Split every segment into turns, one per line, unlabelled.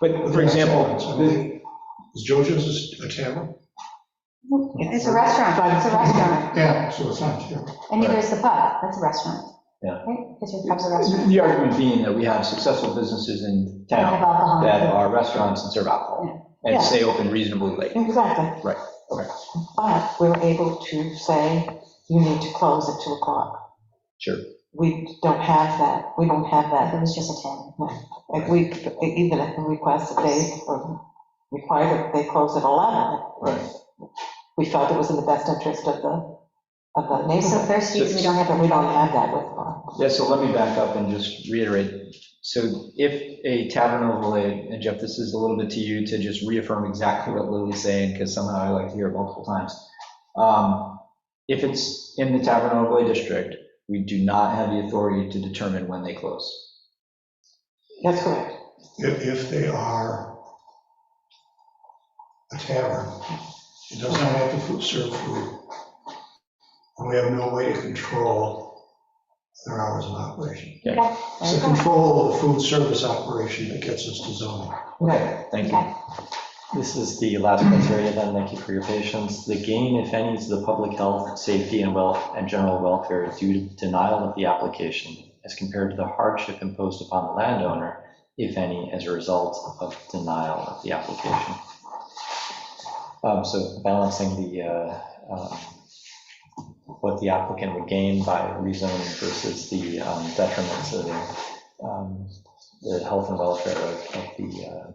But for example, the-
Is Jojo's a tavern?
It's a restaurant, but it's a restaurant,
Yeah, so it's not a tavern.
and neither is the pub, that's a restaurant.
Yeah.
Right? Because your pub's a restaurant,
the argument being that we have successful businesses in
they have
town that
alcohol.
are restaurants and serve alcohol and
Yeah.
stay open reasonably late.
Exactly.
Right, okay.
But we were able to say, you need to close at 2 o'clock.
Sure.
We don't have that, we don't have
It
that.
was just a ten.
Like, we, even if the request that they, or required that they close at 11.
Right.
We felt it was in the best interest of the, of the
They're so
neighborhood.
thirsty, we don't have
But
them.
we don't have that with, uh,
Yeah, so let me back up and just reiterate. So if a tavern overlay, and Jeff, this is a little bit to you to just reaffirm exactly what Lily's saying, because somehow I like to hear it multiple times. Um, If it's in the tavern overlay district, we do not have the authority to determine when they close.
that's correct.
If, if they are a tavern, it does not have to food- serve food. And we have no way to control their hours of operation. It's the control of the food service operation that gets us to zoning.
Okay, thank you.
This is the last criteria then, thank you for your patience. The gain, if any, to the public health, safety, and wealth, and general welfare due to denial of the application as compared to the hardship imposed upon the landowner, if any, as a result of denial of the application. Um, So balancing the, uh, um, what the applicant would gain by rezoning versus the um, detriment to the, um, the health and welfare of of the uh,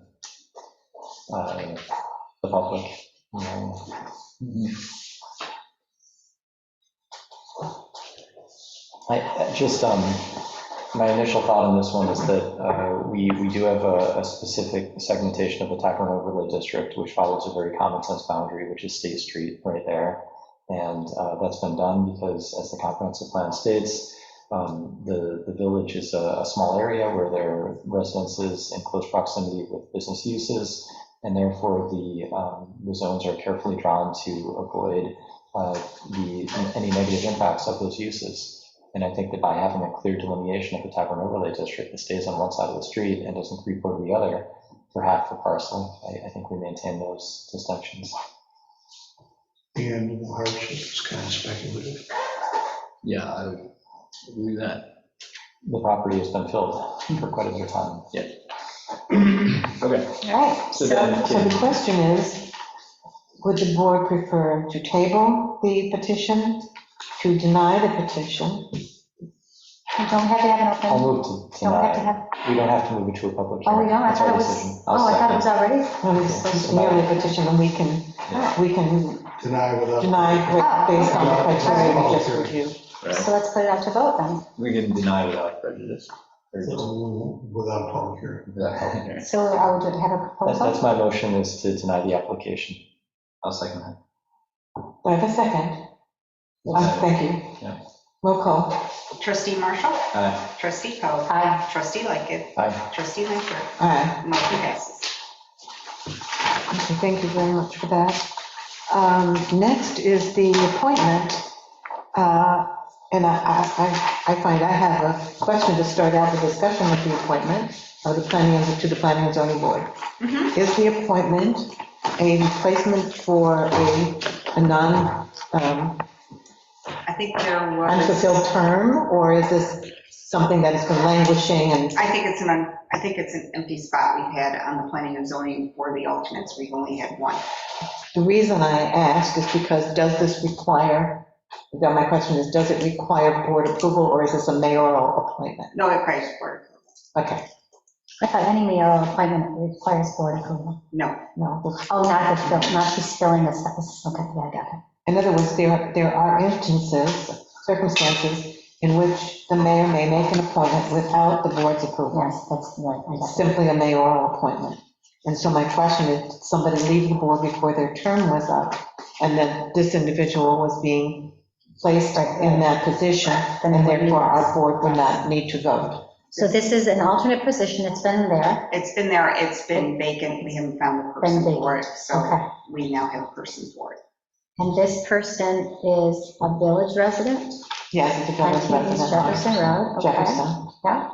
uh, the public. Um, you know. I, I just, um, my initial thought on this one is that uh, we, we do have a, a specific segmentation of the Tacoma overlay district, which follows a very common sense boundary, which is State Street right there. And uh, that's been done because, as the comprehensive plan states, um, The, the village is a, a small area where there are residences in close proximity with business uses, and therefore the, um, the zones are carefully drawn to avoid uh, the, any negative impacts of those uses. And I think that by having a clear delineation of the tavern overlay district that stays on one side of the street and doesn't creep over the other for half the parcel, I, I think we maintain those distinctions.
And the hardship is kind of speculative.
Yeah, I would agree with that.
The property has been filled for quite a bit of time.
Okay,
All right,
So
so
then-
so the question is, would the board prefer to table the petition, to deny the petition?
You don't have to have an
I'll
open,
move to
don't have
deny.
to have,
We don't have to move it to a public
oh,
hearing.
we don't, I
It's our
thought it was,
decision. I'll
oh, I thought it
second.
was already.
No, it's it's merely a petition, and we can, we can
Deny without.
deny it based on the criteria we just reviewed.
So let's put it out to vote then.
we can deny without prejudice. Or just
Without public hearing.
without public hearing.
So I would have a
That- That's
proposal.
my motion, is to deny the application.
I'll second that.
Do I have a second? Uh, Thank you.
Yeah.
Roll call.
Trustee Marshall?
Aye.
Trustee Coe?
Aye.
Trustee Lightkit?
Aye.
Trustee Lanfair?
Aye.
Motion passes.
Okay, Thank you very much for that. Um, Next is the appointment, uh, and I- I I- I find I have a question to start out the discussion with the appointment of the planning, and- to the planning and zoning board.
Mhm.
Is the appointment a replacement for a a non, um,
I think there
unfulfilled
was,
term, or is this something that has been languishing and,
I think it's an, un- I think it's an empty spot we've had on the planning and zoning for the alternates. We've only had one.
the reason I ask is because does this require, now my question is, does it require board approval, or is this a mayoral appointment?
No, it requires board.
Okay,
I thought any mayoral appointment requires board approval.
No,
no.
Oh, not the fill, not she's filling this, this, okay, yeah, I got it.
In other words, there, there are instances, circumstances, in which the mayor may make an appointment without the board's approval.
Yes, that's right, I
It's
got it.
simply a mayoral appointment. And so my question is, did somebody leave the board before their term was up, and then this individual was being placed in that position, and therefore our board would not need to vote.
So this is an alternate position, it's been there,
it's been there, it's been vacant, we haven't found the
Been
person
vacant.
for it,
okay.
so we now have a person for it.
And this person is a village resident,
Yes, it's a
on
village
East
resident.
Jefferson Road, okay?
Jefferson.
Yeah,